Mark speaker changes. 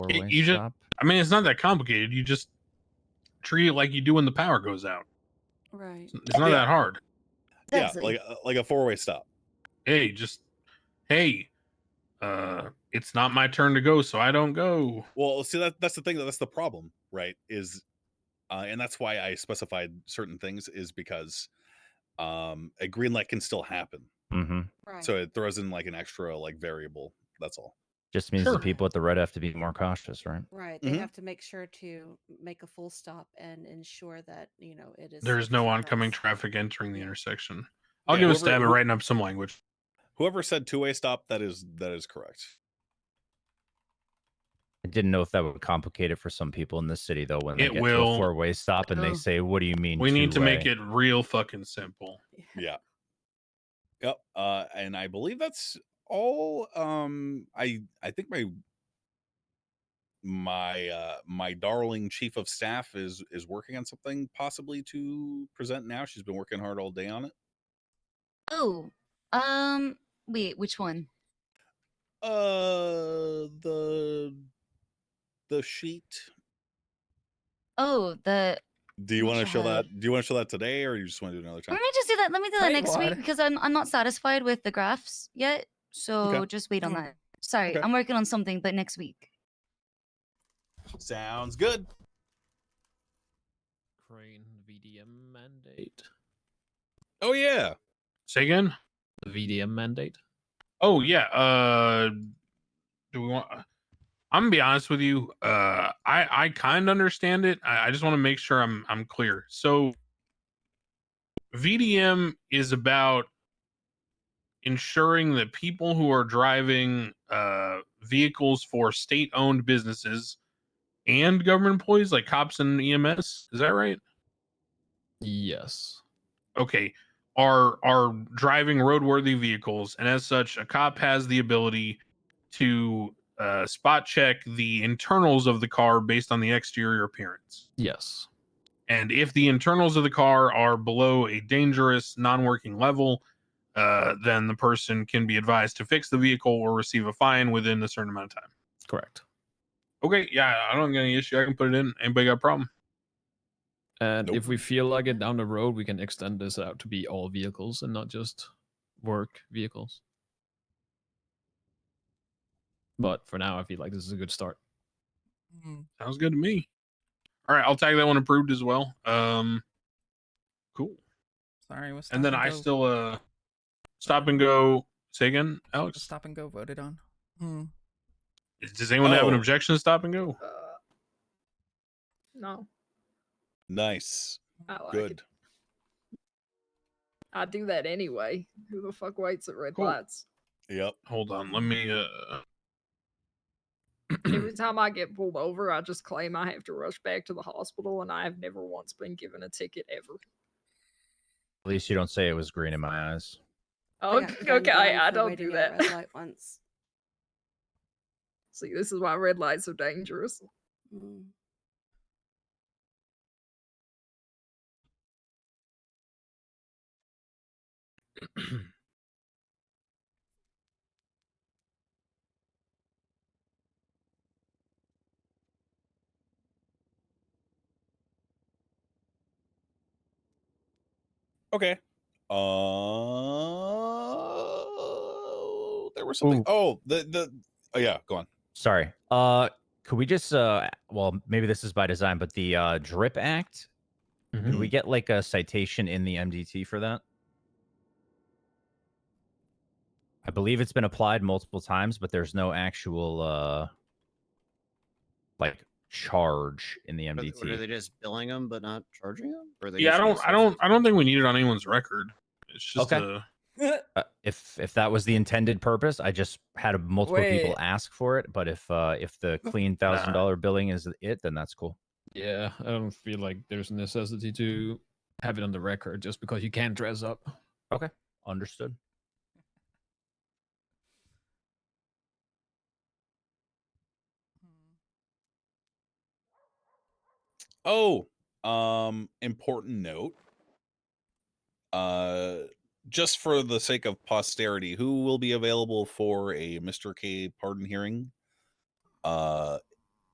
Speaker 1: Four-way
Speaker 2: you just-
Speaker 1: stop.
Speaker 2: I mean, it's not that complicated. You just treat it like you do when the power goes out.
Speaker 3: Right.
Speaker 2: It's not
Speaker 4: Yeah.
Speaker 2: that hard.
Speaker 4: Yeah,
Speaker 5: Exactly.
Speaker 4: like uh, like a four way stop.
Speaker 2: Hey, just hey, uh, it's not my turn to go, so I don't go.
Speaker 4: Well, see that that's the thing that's the problem, right? Is uh, and that's why I specified certain things is because um a green light can still happen.
Speaker 1: Mm-hmm.
Speaker 3: Right.
Speaker 4: So it throws in like an extra like variable. That's all.
Speaker 1: Just means
Speaker 2: Sure.
Speaker 1: the people at the red have to be more cautious, right?
Speaker 3: right. They
Speaker 6: Mm-hmm.
Speaker 4: Mhm.
Speaker 3: have to make sure to make a full stop and ensure that, you know, it is.
Speaker 2: There is
Speaker 3: safe
Speaker 2: no
Speaker 3: for
Speaker 2: oncoming
Speaker 3: us.
Speaker 2: traffic entering the intersection. I'll
Speaker 4: Yeah,
Speaker 2: give a
Speaker 4: whoever-
Speaker 2: stab at
Speaker 4: who-
Speaker 2: writing up some language.
Speaker 4: Whoever said two way stop, that is that is correct.
Speaker 1: I didn't know if that would complicate it for some people in the city though. When they
Speaker 2: It
Speaker 1: get to
Speaker 2: will.
Speaker 1: a four-way stop and
Speaker 3: Oh.
Speaker 1: they say, "What do you mean?"
Speaker 2: We need to make
Speaker 1: two-way?"
Speaker 2: it real fucking simple.
Speaker 3: Yeah.
Speaker 4: Yeah. Yep. Uh, and I believe that's all. Um, I I think my my uh my darling chief of staff is is working on something possibly to present now. She's been working hard all day on it.
Speaker 5: Oh, um, wait, which one?
Speaker 4: Uh, the the sheet.
Speaker 5: Oh, the.
Speaker 4: Do you
Speaker 5: What
Speaker 4: want to
Speaker 5: you
Speaker 4: show
Speaker 5: have?
Speaker 4: that? Do you want to show that today, or you just want to do it another time?
Speaker 5: Let me just do that. Let me do that
Speaker 1: Wait,
Speaker 5: next week
Speaker 1: what?
Speaker 5: because I'm I'm not satisfied with the graphs yet. So just wait on
Speaker 4: Okay. Mm.
Speaker 5: that. Sorry,
Speaker 4: Okay.
Speaker 5: I'm working on something, but next week.
Speaker 4: Sounds good.
Speaker 7: Crane VDM mandate.
Speaker 4: Oh yeah.
Speaker 2: Say again.
Speaker 7: The VDM mandate.
Speaker 2: Oh yeah. Uh, do we want? uh, I'm gonna be honest with you. Uh, I I kind of understand it. I, I just want to make sure I'm I'm clear. So, VDM is about ensuring that people who are driving uh vehicles for state-owned businesses and government employees like cops and EMS. Is that right?
Speaker 7: Yes.
Speaker 2: okay are are driving roadworthy vehicles and as such a cop has the ability to uh, spot check the internals of the car based on the exterior appearance
Speaker 7: Yes.
Speaker 2: and if the internals of the car are below a dangerous non-working level uh, then the person can be advised to fix the vehicle or receive a fine within a certain amount of time
Speaker 7: Correct.
Speaker 2: okay yeah i don't get any issue i can put it in anybody got a problem
Speaker 7: And
Speaker 4: Nope.
Speaker 7: if we feel like it down the road, we can extend this out to be all vehicles and not just work vehicles. But for now, I feel like this is a good start.
Speaker 8: Mm,
Speaker 2: Sounds good to me. All right, I'll tag that one approved as well. Um, cool.
Speaker 8: Sorry, was
Speaker 2: And then
Speaker 8: stop
Speaker 2: I
Speaker 8: go-
Speaker 2: still uh stop and go. Say again,
Speaker 8: was
Speaker 2: Alex.
Speaker 8: stop and go voted on. Hmm.
Speaker 2: Does anyone have an
Speaker 4: Oh.
Speaker 2: objection to stop and go?
Speaker 6: Uh, No.
Speaker 4: Nice.
Speaker 6: Oh, I,
Speaker 4: Good.
Speaker 6: could- I do that anyway. Who the fuck waits at red
Speaker 2: Cool.
Speaker 6: lights?
Speaker 4: Yep.
Speaker 2: Hold on, let me. uh
Speaker 6: Every time I get pulled over, I just claim I have to rush back to the hospital, and I have never once been given a ticket ever.
Speaker 1: At least you don't say it was green in my eyes.
Speaker 3: I got
Speaker 6: Oh, okay,
Speaker 3: gunned
Speaker 6: okay,
Speaker 3: down
Speaker 6: I, I
Speaker 3: for
Speaker 6: don't
Speaker 3: waiting
Speaker 6: do
Speaker 3: at a
Speaker 6: that.
Speaker 3: red light once.
Speaker 6: See, this is why red lights are dangerous.
Speaker 3: Mm.
Speaker 4: Okay. Uh, there was something. Oh, the the. Oh yeah, go on.
Speaker 1: Sorry. Uh, could we just uh, well, maybe this is by design, but the uh, Drip Act. Could
Speaker 9: Mm-hmm.
Speaker 1: we get like a citation in the MDT for that? I believe it's been applied multiple times, but there's no actual uh, like charge in the
Speaker 9: Are, th- what, are they
Speaker 1: MDT.
Speaker 9: just billing them but not charging them? Or are they
Speaker 2: Yeah, I
Speaker 9: issuing
Speaker 2: don't.
Speaker 9: a
Speaker 2: I don't.
Speaker 9: citation?
Speaker 2: I don't think we need it on anyone's record. It's just
Speaker 1: Okay.
Speaker 2: a-
Speaker 1: Uh, if if that was the intended purpose, I just had multiple people
Speaker 8: Wait.
Speaker 1: ask for it. But if uh, if the clean thousand dollar billing is it, then that's cool.
Speaker 7: Yeah, I don't feel like there's a necessity to have it on the record just because you can't dress up.
Speaker 1: Understood.
Speaker 4: Oh, um, important note. Uh, just for the sake of posterity, who will be available for a Mr. K pardon hearing? Uh,